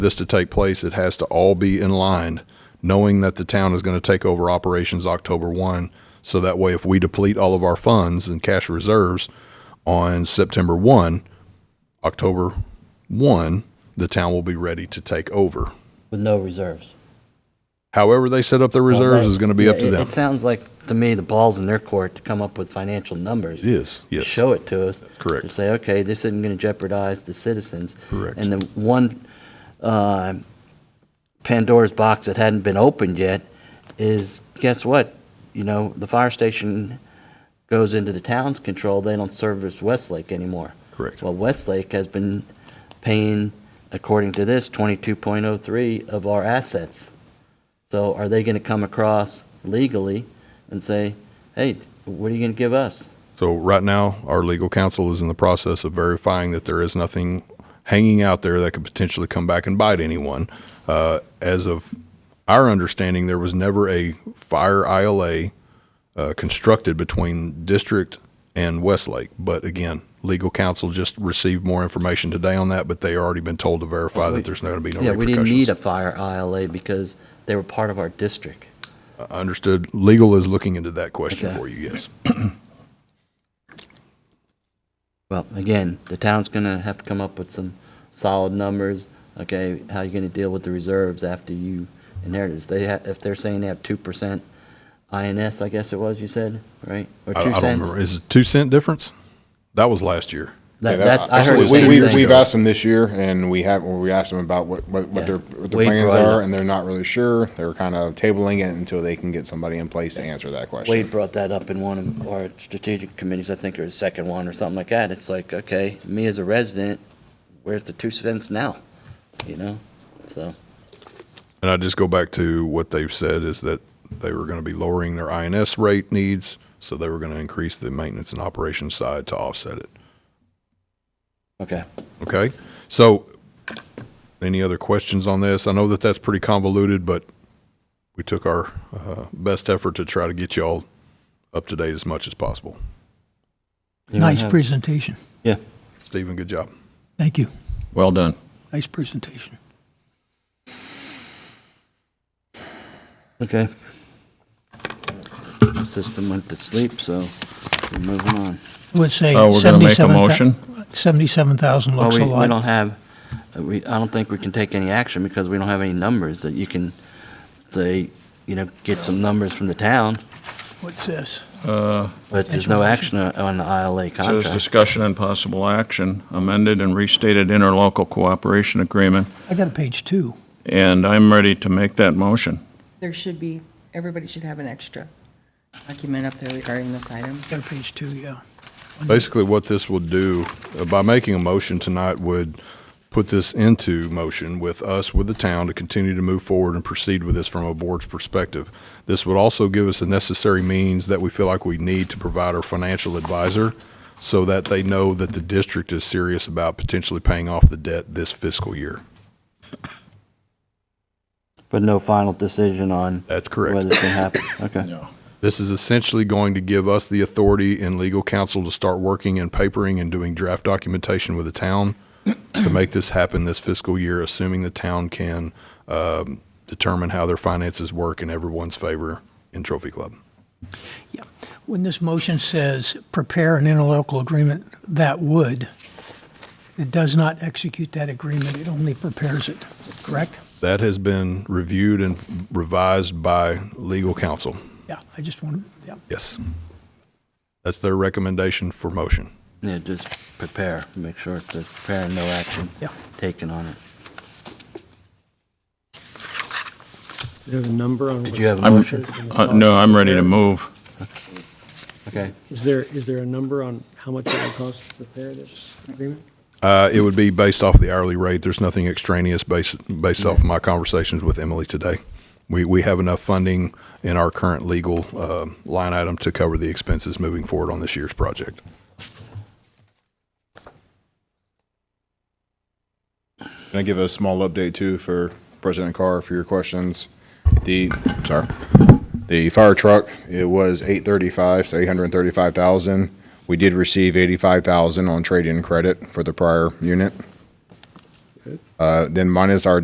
this to take place, it has to all be in line, knowing that the town is going to take over operations October 1. So that way, if we deplete all of our funds and cash reserves on September 1, October 1, the town will be ready to take over. with no reserves. However, they set up their reserves is going to be up Yeah, to it- them. It sounds like, to me, the ball's in their court to come up with financial numbers. It is, yes. Show it to us. correct. To say, okay, this isn't going to jeopardize the citizens. Correct. And the one uh, Pandora's box that hadn't been opened yet is, guess what? You know, the fire station goes into the town's control, they don't service Westlake anymore. Correct. Well, Westlake has been paying, according to this, 22.03 of our assets. So are they going to come across legally and say, hey, what are you going to give us? So right now, our legal counsel is in the process of verifying that there is nothing hanging out there that could potentially come back and bite anyone. Uh, as of our understanding, there was never a fire ILA uh, constructed between district and Westlake. But again, legal counsel just received more information today on that, but they already been told to verify that there's not going to be no Yeah, we didn't need a repercussions. fire ILA because they were part of our district. I Understood. Legal is looking into that question Okay. for you, yes. Well, again, the town's going to have to come up with some solid numbers. Okay, how you going to deal with the reserves after you inherit this? They ha if they're saying they have 2% INS, I guess it was, you said, right? Or I- I 2 don't cents? remember. Is it two cent difference? That was last year. That, Yeah, that, I heard the absolutely. same we, thing. we, We've asked them this year, and we have, or we asked them about what, what, what Yeah. their, what their Wade plans brought it are, up. and they're not really sure. They're kind of tabling it until they can get somebody in place to answer that question. Wade brought that up in one of our strategic committees, I think, or his second one, or something like that. It's like, okay, me as a resident, where's the two cents now? You know, so, And I just go back to what they've said is that they were going to be lowering their INS rate needs, so they were going to increase the maintenance and operations side to offset it. okay. Okay? So, any other questions on this? I know that that's pretty convoluted, but we took our uh, best effort to try to get y'all up to date as much as possible. Nice presentation. Yeah. Stephen, good job. Thank you. Well done. Nice presentation. Okay. The System went to sleep, so we're moving on. I would say Oh, we're gonna make a 77,000 motion? 77,000 Well, looks Oh, we, a we don't lot. have, uh, we, I don't think we can take any action because we don't have any numbers that you can say, you know, get some numbers from the town, What's this? but there's no action on on the ILA Says contract. discussion and possible action, amended and restated interlocal cooperation agreement, I got a page two. and I'm ready to make that motion. There should be, everybody should have an extra document up there regarding this item. I got a page two, yeah. Basically, what this will do, uh, by making a motion tonight, would put this into motion with us, with the town, to continue to move forward and proceed with this from a board's perspective. This would also give us the necessary means that we feel like we need to provide our financial advisor so that they know that the district is serious about potentially paying off the debt this fiscal year. But no final decision on That's whether correct. it's gonna happen, okay. This is essentially going to give us the authority and legal counsel to start working and papering and doing draft documentation with the town to make this happen this fiscal year, assuming the town can um, determine how their finances work in everyone's favor in Trophy Club. Yeah. When this motion says prepare an interlocal agreement, that would, it does not execute that agreement, it only prepares it, correct? That has been reviewed and revised by legal counsel. Yeah, I just want, yeah. Yes. That's their recommendation for motion. Yeah, just prepare, make sure it says prepare, no action Yeah. taken on it. Do you have a number on? Did what- you have a I'm- motion? Uh, No, I'm ready to move. Okay, Is there, is there a number on how much it would cost to prepare this agreement? Uh, It would be based off the hourly rate. There's nothing extraneous based, based off my conversations with Emily today. We, we have enough funding in our current legal uh, line item to cover the expenses moving forward on this year's project. Can I give a small update too for President Carr for your questions? The, sorry, the fire truck, it was eight thirty-five, so eight hundred and thirty-five thousand. We did receive eighty-five thousand on trade-in credit for the prior unit. Uh, then minus our